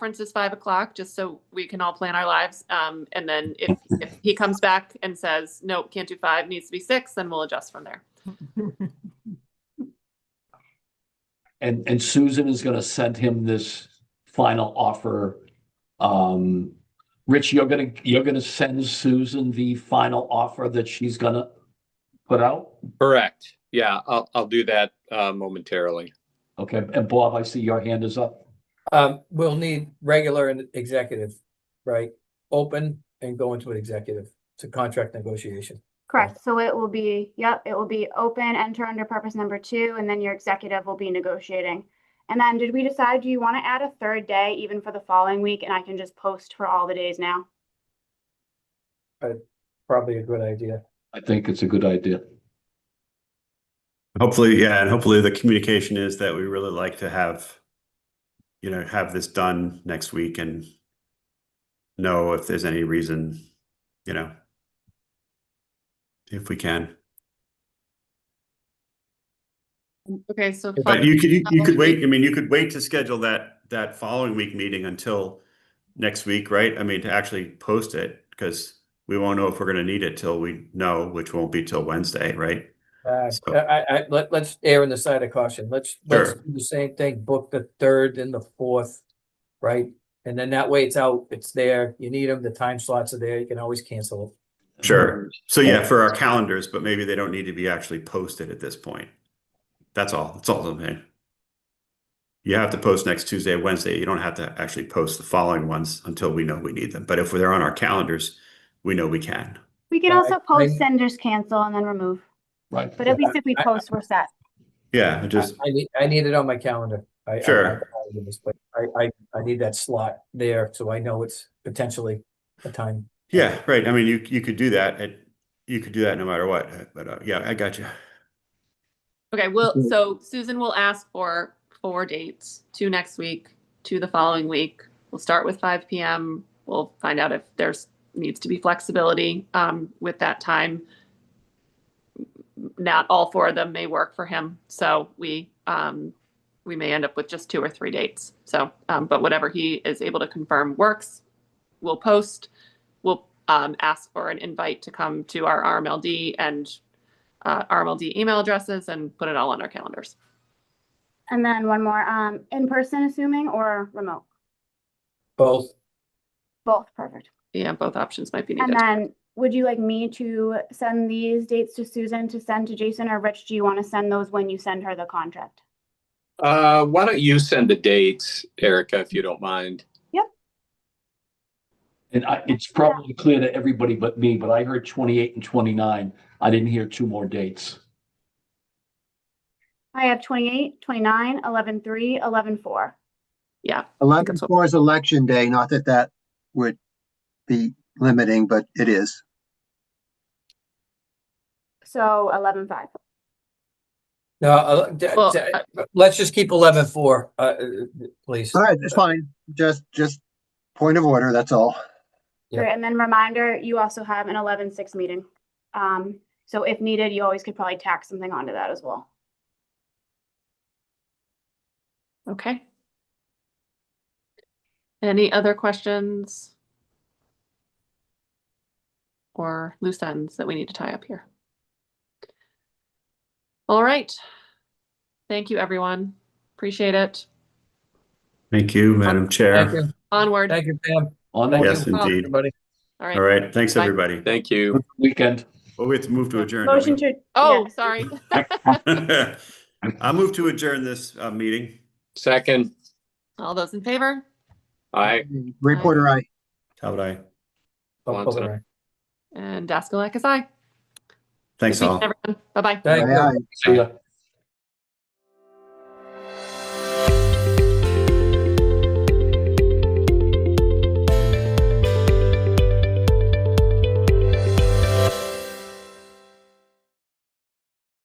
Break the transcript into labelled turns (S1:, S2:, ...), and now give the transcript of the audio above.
S1: conference is five o'clock, just so we can all plan our lives. Um, and then if, if he comes back and says, nope, can't do five, needs to be six, then we'll adjust from there.
S2: And, and Susan is gonna send him this final offer. Um, Rich, you're gonna, you're gonna send Susan the final offer that she's gonna put out?
S3: Correct. Yeah, I'll, I'll do that uh, momentarily.
S2: Okay, and Bob, I see your hand is up.
S4: Um, we'll need regular and executive, right? Open and go into an executive to contract negotiation.
S5: Correct, so it will be, yep, it will be open, enter under purpose number two, and then your executive will be negotiating. And then did we decide, do you want to add a third day even for the following week, and I can just post for all the days now?
S4: Probably a good idea.
S2: I think it's a good idea.
S6: Hopefully, yeah, and hopefully the communication is that we really like to have, you know, have this done next week and know if there's any reason, you know, if we can.
S1: Okay, so.
S6: But you could, you you could
S1: following
S6: wait,
S1: week-
S6: I mean, you could wait to schedule that, that following week meeting until next week, right? I mean, to actually post it, because we won't know if we're gonna need it till we know, which won't be till Wednesday, right?
S4: Uh,
S6: So-
S4: I, I, let, let's err on the side of caution. Let's, let's
S6: Sure.
S4: do the same thing, book the third and the fourth, right? And then that way it's out, it's there, you need them, the time slots are there, you can always cancel
S6: Sure. So yeah, for our calendars, but maybe they don't need to be actually posted at this point. That's all. That's all I'm saying. You have to post next Tuesday, Wednesday. You don't have to actually post the following ones until we know we need them. But if they're on our calendars, we know we can.
S5: We could
S4: Yeah, I-
S5: also post,
S4: I-
S5: senders cancel, and then remove,
S2: Right.
S5: but at least if we
S4: I- I-
S5: post, we're set.
S6: Yeah,
S4: it.
S6: just
S4: I, I need, I need it on my calendar. I- I- I-
S6: Sure.
S4: I, I, I need that slot there, so I know it's potentially a time.
S6: yeah, right. I mean, you you could do that. At, you could do that no matter what. But uh, yeah, I got you.
S1: Okay, well, so Susan will ask for four dates, two next week, two the following week. We'll start with five PM. We'll find out if there's needs to be flexibility um, with that time. Not all four of them may work for him, so we um, we may end up with just two or three dates. So, um, but whatever he is able to confirm works, we'll post. We'll um, ask for an invite to come to our RMLD and uh, RMLD email addresses and put it all on our calendars.
S5: And then one more, um, in person assuming or remote,
S4: Both
S5: both, perfect.
S1: Yeah, both options might be
S5: And
S1: needed.
S5: then, would you like me to send these dates to Susan to send to Jason, or Rich, do you want to send those when you send her the contract?
S3: Uh, why don't you send the dates, Erica, if you don't mind?
S2: And I, it's probably clear to everybody but me, but I heard twenty-eight and twenty-nine. I didn't hear two more dates.
S5: I have 28, 29, 11, 3, 11, 4.
S1: Yeah.
S7: Eleven
S1: that's what-
S7: four is election day, not that that would be limiting, but it is.
S5: So 11, 5.
S4: No, uh, d-
S1: Well,
S4: d- let's just keep eleven four, uh, uh, please.
S7: All right, it's fine. Just, just point of order, that's all.
S4: Yeah.
S5: Great, And then reminder, you also have an 11, 6 meeting. Um, so if needed, you always could probably tack something onto that as well.
S1: Okay. Any other questions? Or loose ends that we need to tie up here? All right. Thank you, everyone. Appreciate it.
S6: Thank you, Madam
S4: Thank
S6: Chair.
S4: you,
S1: Onward.
S4: thank you, Pam.
S2: On
S4: Thank
S2: that
S6: Yes,
S4: you,
S6: indeed.
S4: everybody.
S1: All
S6: All
S1: right.
S6: right. Thanks,
S1: Bye.
S6: everybody.
S3: Thank you.
S2: weekend.
S6: Well, we have to move to adjourn. don't
S5: Motion to.
S6: we?
S1: Oh,
S5: yeah.
S1: sorry.
S6: I move to adjourn this uh, meeting.
S3: Second,
S1: All those in favor?
S3: I,
S7: Reporter, I.
S6: How would I?
S4: Oh,
S3: Lonzo.
S4: okay.
S1: And Daskalakis, aye.
S6: Thanks all.
S1: Bye bye.
S4: Thank you.
S2: See ya.